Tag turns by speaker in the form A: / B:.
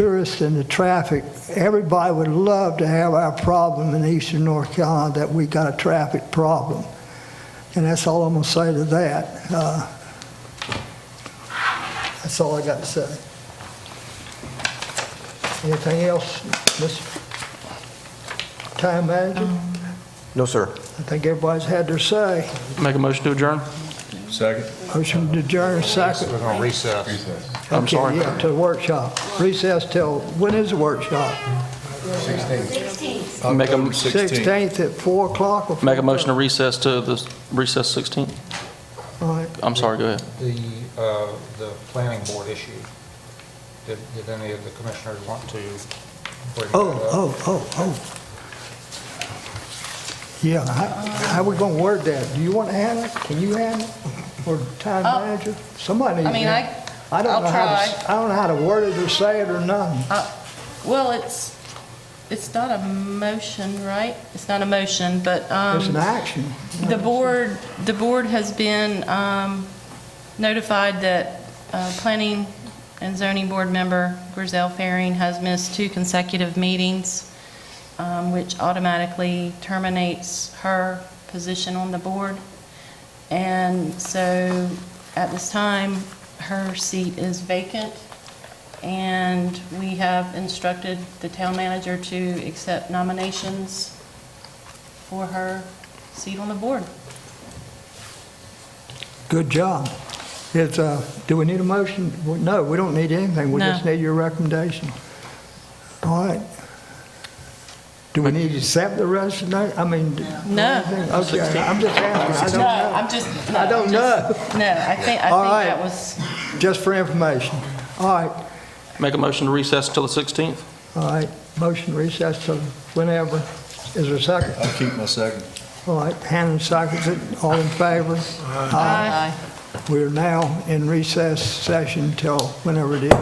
A: tourists and the traffic, everybody would love to have our problem in eastern North Carolina, that we got a traffic problem. And that's all I'm going to say to that. Uh, That's all I got to say. Anything else, Ms. Time Manager?
B: No, sir.
A: I think everybody's had their say.
C: Make a motion to adjourn?
D: Second.
A: Motion to adjourn, second.
E: We're going to recess.
C: I'm
A: Okay,
C: sorry.
A: yeah, To the workshop. Recess till, when is the workshop?
C: Make a,
D: Sixteen.
A: 16th at 4 o'clock? or
C: make a
A: 4:30?
C: motion to recess to the recess 16th?
A: All right.
C: I'm sorry, go ahead.
E: The, uh, the planning board issue. Did, did any of the commissioners want to bring that
A: Oh,
E: up?
A: oh, oh, oh. Yeah, how, how we gonna word that? Do you wanna handle it? Can you handle it? Or town
F: Uh,
A: manager? Somebody
F: I
A: needs
F: mean,
A: to.
F: I,
A: I don't
F: I'll
A: know how to s- I don't know how to word it or say it or nothing.
F: well, it's, it's not a motion, right? It's not a motion, but
A: It's an
F: um,
A: action.
F: the board, the board has been um, notified that uh, planning and zoning board member Grizel Faring has missed two consecutive meetings, um, which automatically terminates her position on the board. And so at this time, her seat is vacant, and we have instructed the town manager to accept nominations for her seat on the board.
A: Good job. It's, uh, do we need a motion? Well, No, we don't need anything. We
F: No.
A: just need your recommendation. All right. Do we need to accept the resignation? I mean. do-
F: No.
A: anything? Okay, I'm just asking. I don't
F: No,
A: know.
F: I'm just. no,
A: I don't
F: I'm just- No, I think, I
A: All
F: think
A: right.
F: that was, uh,
A: Just for information. All right,
C: Make a motion to recess till the 16th?
A: all right, motion recess to whenever. Is there a second?
D: I'll keep my second.
A: All right, Hannah seconds it, all in favor?
F: Aye.
A: Uh, We're now in recess session till whenever it is.